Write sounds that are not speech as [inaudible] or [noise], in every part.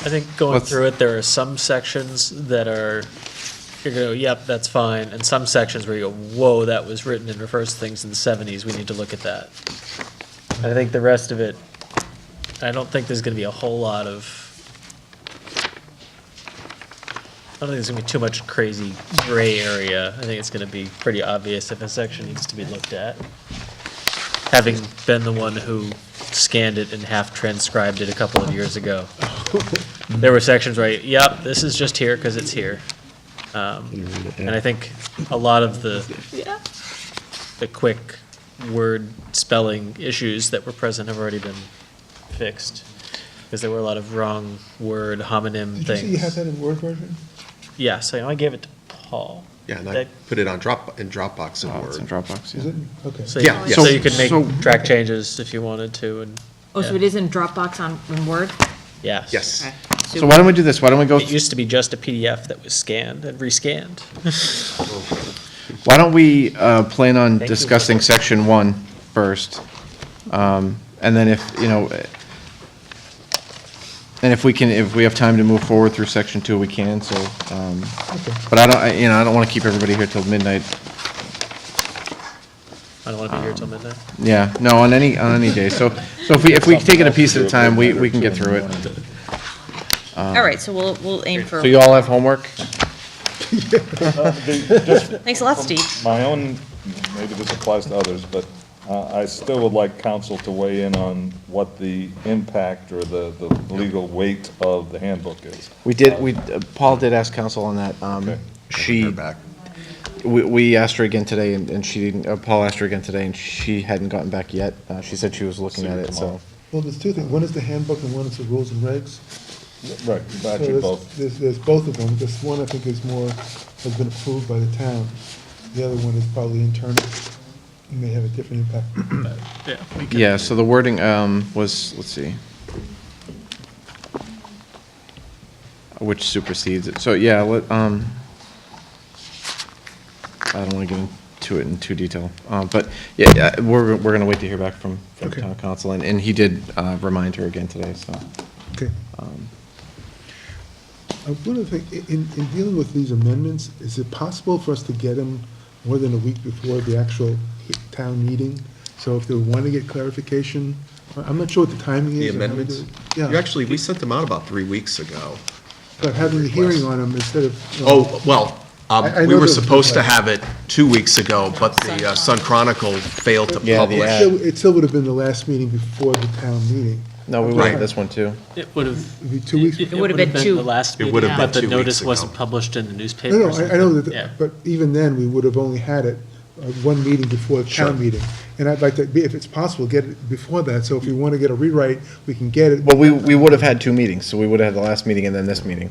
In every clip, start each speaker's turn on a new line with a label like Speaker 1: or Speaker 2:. Speaker 1: I think going
Speaker 2: Let's-
Speaker 1: through it, there are some sections that are, you go, yep, that's fine, and some sections where you go, whoa, that was written and refers to things in the seventies, we need to look at that. I think the rest of it, I don't think there's gonna be a whole lot of, I don't think there's gonna be too much crazy gray area. I think it's gonna be pretty obvious if a section needs to be looked at. Having been the one who scanned it and half transcribed it a couple of years
Speaker 3: [laughs]
Speaker 1: ago. There were sections where, I- yep, this is just here because it's here. Um, And I think a lot of the, the quick word spelling issues that were present have already been fixed. Because there were a lot of wrong word homonym
Speaker 3: Did you say you had
Speaker 1: things.
Speaker 3: that in Word version?
Speaker 1: Yeah, so I gave it to Paul.
Speaker 4: Yeah, and I
Speaker 1: That-
Speaker 4: put it on Drop, in Dropbox in
Speaker 2: Oh, it's in
Speaker 4: Word.
Speaker 2: Dropbox,
Speaker 3: Is
Speaker 2: yeah.
Speaker 3: it? Okay.
Speaker 1: So
Speaker 4: Yeah,
Speaker 1: you-
Speaker 4: yes.
Speaker 1: so you could
Speaker 2: So-
Speaker 1: make track changes if you wanted to and,
Speaker 5: Oh, so it is in Dropbox on, in Word?
Speaker 1: yes.
Speaker 4: Yes.
Speaker 5: Okay.
Speaker 2: So why don't we do this? Why don't we go,
Speaker 1: It used to be just a PDF that was scanned and rescanned.
Speaker 2: why don't we uh, plan on
Speaker 1: Thank you.
Speaker 2: discussing section one first? Um, And then if, you know, eh, and if we can, if we have time to move forward through section two, we can, so. um, But I don't, I- you know, I don't want to keep everybody here till midnight.
Speaker 1: I don't want to be here till midnight.
Speaker 2: Yeah, no, on any, on any day. So, so if we, if we take it a piece at a time, we, we can get through it.
Speaker 6: All right, so we'll, we'll aim for,
Speaker 2: So you all have homework?
Speaker 6: thanks a lot, Steve.
Speaker 7: My own, maybe this applies to others, but uh, I still would like council to weigh in on what the impact or the, the legal weight of the handbook is.
Speaker 2: We did, we, uh, Paul did ask counsel on that. Um,
Speaker 7: Okay.
Speaker 2: She,
Speaker 4: Back.
Speaker 2: we, we asked her again today and and she didn't, uh, Paul asked her again today and she hadn't gotten back yet. Uh, She said she was looking
Speaker 7: See
Speaker 2: at
Speaker 7: her
Speaker 2: it, so.
Speaker 7: tomorrow.
Speaker 3: Well, there's two things. One is the handbook and one is the rules and regs.
Speaker 7: Right,
Speaker 3: So
Speaker 7: actually
Speaker 3: there's-
Speaker 7: both.
Speaker 3: There's, there's both of them. This one I think is more, has been approved by the town. The other one is probably internal. It may have a different impact.
Speaker 2: Yeah, so the wording um, was, let's see. Which supersedes it. So, yeah, let, um, I don't want to get into it in too detail. Uh, But, yeah, yeah, we're, we're going to wait to hear back from, from
Speaker 3: Okay.
Speaker 2: town council. And, and he did uh, remind her again today, so.
Speaker 3: Okay. Um, I wonder if, i- in, in dealing with these amendments, is it possible for us to get them more than a week before the actual hi- town meeting? So if they want to get clarification, I- I'm not sure what the timing is. or how
Speaker 4: The
Speaker 3: we do
Speaker 4: amendments?
Speaker 3: it.
Speaker 4: You
Speaker 3: Yeah,
Speaker 4: actually, we sent them out about three weeks ago.
Speaker 3: but having the hearing on them instead of. you know,
Speaker 4: Oh, well, um,
Speaker 3: I- I
Speaker 4: we
Speaker 3: know
Speaker 4: were
Speaker 3: those
Speaker 4: supposed to
Speaker 3: people.
Speaker 4: have it two weeks ago, but the uh, Sun Chronicle failed to
Speaker 2: Yeah, the
Speaker 3: It
Speaker 2: ad.
Speaker 4: publish.
Speaker 3: still- it still would have been the last meeting before the town meeting.
Speaker 2: No, we
Speaker 4: Right.
Speaker 2: wanted this one, too.
Speaker 1: It would have
Speaker 3: It'd be two weeks.
Speaker 1: It
Speaker 6: would've
Speaker 1: would
Speaker 6: been
Speaker 1: have been
Speaker 6: two-
Speaker 1: the last
Speaker 4: It
Speaker 1: meeting,
Speaker 4: would've been
Speaker 1: but the
Speaker 4: two weeks
Speaker 1: notice
Speaker 4: ago.
Speaker 1: wasn't published in the newspaper.
Speaker 3: No, no,
Speaker 1: or
Speaker 3: I, I know
Speaker 1: something.
Speaker 3: that,
Speaker 1: Yeah.
Speaker 3: but even then, we would have only had it, uh, one meeting before the
Speaker 4: Sure.
Speaker 3: town meeting. And I'd like to, be if it's possible, get it before that, so if we want to get a rewrite, we can get it.
Speaker 2: Well, we, we would have had two meetings, so we would have had the last meeting and then this meeting.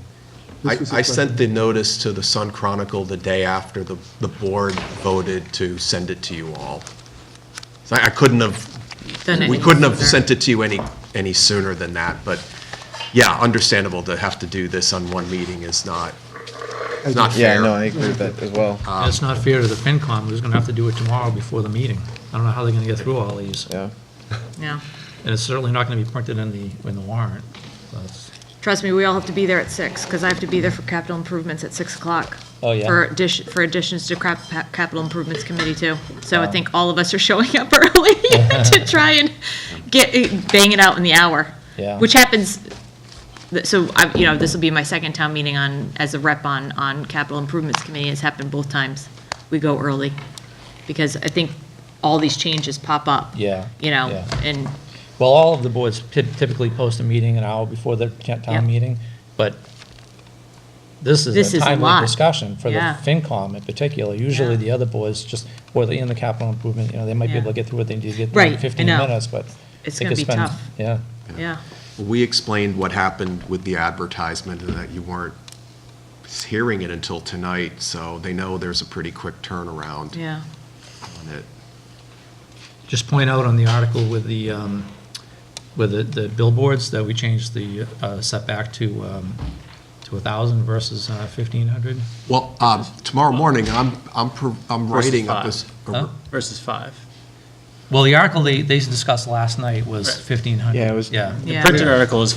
Speaker 4: I,
Speaker 3: This was the
Speaker 4: I
Speaker 3: question.
Speaker 4: sent the notice to the Sun Chronicle the day after the, the board voted to send it to you all. So I I couldn't have We couldn't have sent it to you any, any sooner than that, but yeah, understandable to have to do this on one meeting is not,
Speaker 3: I
Speaker 4: it's not
Speaker 3: just-
Speaker 2: Yeah,
Speaker 4: fair.
Speaker 2: no, I agree with that as well.
Speaker 8: That's not fair to the FinCom, who's gonna have to do it tomorrow before the meeting. I don't know how they're gonna get through all these,
Speaker 2: Yeah.
Speaker 6: No.
Speaker 8: and it's certainly not gonna be printed in the, in the warrant. That's-
Speaker 6: Trust me, we all have to be there at six, because I have to be there for capital improvements at six o'clock.
Speaker 8: Oh, yeah.
Speaker 6: For addition, for additions to crap, pa- capital improvements committee too. So I think all of us are showing up [laughs]
Speaker 8: [laughs]
Speaker 6: early to try and get, eh, bang it out in the hour.
Speaker 8: Yeah.
Speaker 6: Which happens, th- so I, you know, this will be my second town meeting on, as a rep on, on capital improvements committee. It's happened both times. We go early, because I think all these changes pop up.
Speaker 8: Yeah,
Speaker 6: You know,
Speaker 8: yeah.
Speaker 6: and
Speaker 8: Well, all of the boards ty- typically post a meeting an hour before the ta-
Speaker 6: Yep.
Speaker 8: town meeting, but this
Speaker 6: This
Speaker 8: is a
Speaker 6: is a
Speaker 8: timely
Speaker 6: lot.
Speaker 8: discussion for the
Speaker 6: Yeah.
Speaker 8: FinCom in particular. Usually
Speaker 6: Yeah.
Speaker 8: the other boards just, or the, in the capital improvement, you know, they might be
Speaker 6: Yeah.
Speaker 8: able to get through what they need to get
Speaker 6: Right,
Speaker 8: through
Speaker 6: I
Speaker 8: in 15
Speaker 6: know.
Speaker 8: minutes, but.
Speaker 6: It's
Speaker 8: they
Speaker 6: gonna
Speaker 8: could
Speaker 6: be
Speaker 8: spend-
Speaker 6: tough.
Speaker 8: Yeah.
Speaker 6: Yeah,
Speaker 4: We explained what happened with the advertisement and that you weren't hearing it until tonight, so they know there's a pretty quick turnaround
Speaker 6: yeah.
Speaker 4: on it.
Speaker 8: Just point out on the article with the, um, with the- the billboards, that we changed the uh, setback to, um, to 1,000 versus uh, 1,500.
Speaker 4: Well, um, tomorrow morning, I'm, I'm, pro- I'm
Speaker 1: Versus
Speaker 4: writing up
Speaker 1: five.
Speaker 4: this.
Speaker 8: Huh?
Speaker 1: Versus five.
Speaker 8: Well, the article they, they discussed last night was
Speaker 1: Right.
Speaker 8: 1,500.
Speaker 2: Yeah, it was-
Speaker 8: Yeah.
Speaker 1: The
Speaker 6: Yeah.
Speaker 1: printed article is